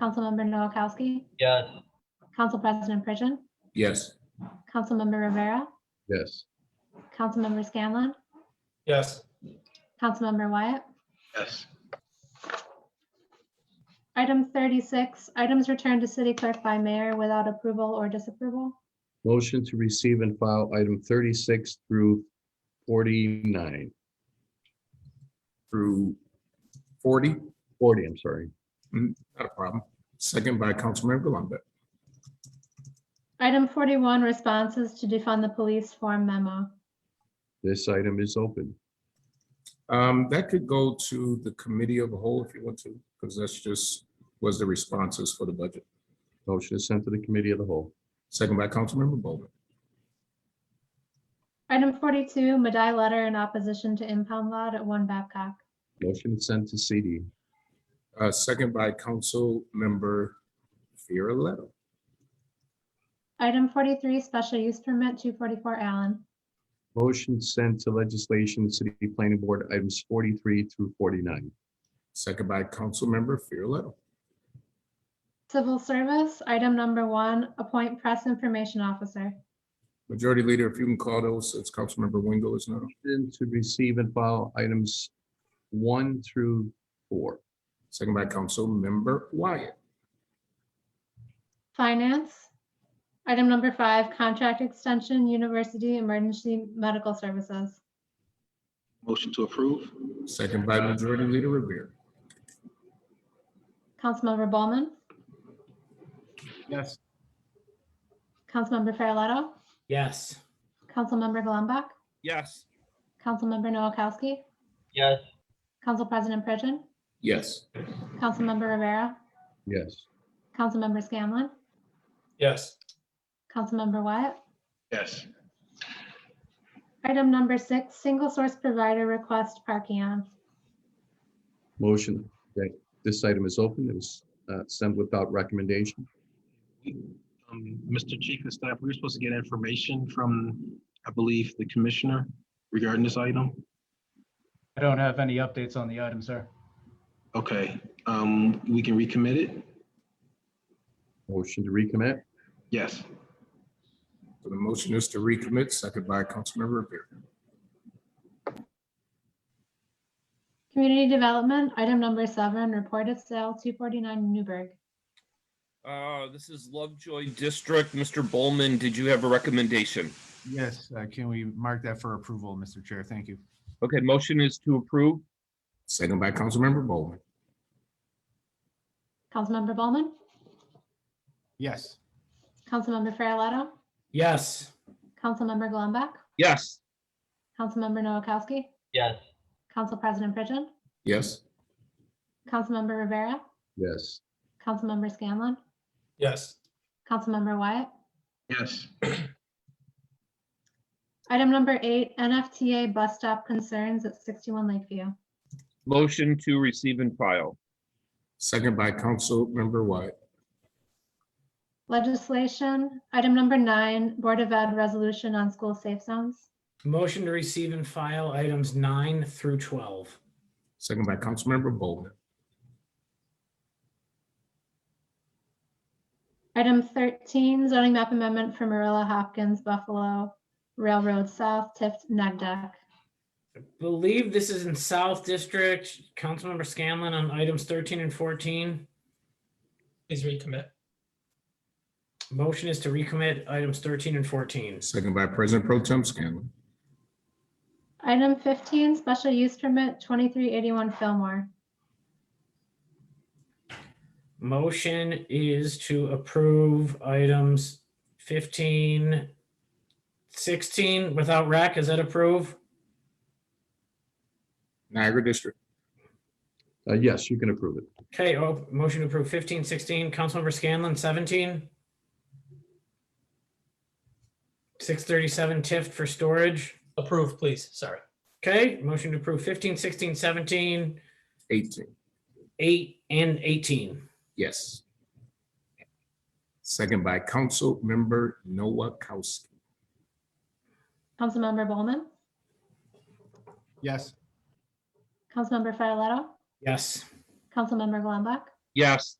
Councilmember Noakowski, Yes. Council President Pridgen, Yes. Councilmember Rivera, Yes. Councilmember Scanlon, Yes. Councilmember Wyatt. Yes. Item thirty-six, items returned to city clerk by mayor without approval or disapproval. Motion to receive and file item thirty-six through forty-nine. through 40, Forty, I'm sorry. not a problem. Second by Councilmember Lambert. Item forty-one, responses to defund the police form memo. This item is open. Um, That could go to the committee of the whole if you want to, because that's just, was the responses for the budget. Motion is sent to the committee of the whole. Second by Councilmember Bowman. Item forty-two, Madai letter in opposition to impound lot at One Babcock. Motion is sent to CD. Uh, Second by Councilmember Farrelletto. Item forty-three, special use permit two forty-four Allen. Motion sent to legislation, city planning board, items forty-three through forty-nine. Second by Councilmember Farrelletto. Civil service, item number one, appoint press information officer. Majority Leader, if you can call those, since Councilmember Wingo is not. on. Motion to receive and file items one through four. Second by Councilmember Wyatt. Finance, item number five, contract extension, university emergency medical services. Motion to approve? Second by Majority Leader Revere. Councilmember Bowman, Yes. Councilmember Farrelletto, Yes. Councilmember Golumback, Yes. Councilmember Noakowski, Yes. Council President Pridgen, Yes. Councilmember Rivera, Yes. Councilmember Scanlon, Yes. Councilmember Wyatt. Yes. Item number six, single source provider request parking on. Motion that this item is open. It was uh, sent without recommendation. Um, Mr. Chief of Staff, we were supposed to get information from, I believe, the commissioner regarding this item. I don't have any updates on the item, sir. Okay, um, we can recommit it? Motion to recommit. Yes. So the motion is to recommit, second by Councilmember Revere. Community development, item number seven, report of sale two forty-nine Newburgh. Uh, this is Lovejoy District. Mr. Bowman, did you have a recommendation? Yes, uh, can we mark that for approval, Mr. Chair? Thank you. Okay, motion is to approve. Second by Councilmember Bowman. Councilmember Bowman, Yes. Councilmember Farrelletto, Yes. Councilmember Golumback, Yes. Councilmember Noakowski, Yes. Council President Pridgen, Yes. Councilmember Rivera, Yes. Councilmember Scanlon, Yes. Councilmember Wyatt. Yes. Item number eight, NFTA bus stop concerns at sixty-one Lakeview. Motion to receive and file. Second by Councilmember Wyatt. Legislation, item number nine, Board of Ed resolution on school safe zones. Motion to receive and file items nine through 12. Second by Councilmember Bowman. Item thirteen, zoning map amendment for Marilla Hopkins Buffalo Railroad South Tift Nagdeck. Believe this is in South District. Councilmember Scanlon on items 13 and 14. Please recommit. Motion is to recommit items 13 and 14. Second by President Pro Tem Scanlon. Item fifteen, special use permit twenty-three eighty-one Fillmore. Motion is to approve items 15, 16 without rec. Is that approve? Niagara District. Uh, Yes, you can approve it. Okay, oh, motion to approve 15, 16. Councilmember Scanlon, 17. 637 TIFT for storage. Approve, please. Sorry. Okay, motion to approve 15, 16, 17, 18. 8, and 18. Yes. Second by Councilmember Noakowski. Councilmember Bowman, Yes. Councilmember Farrelletto, Yes. Councilmember Golumback, Yes.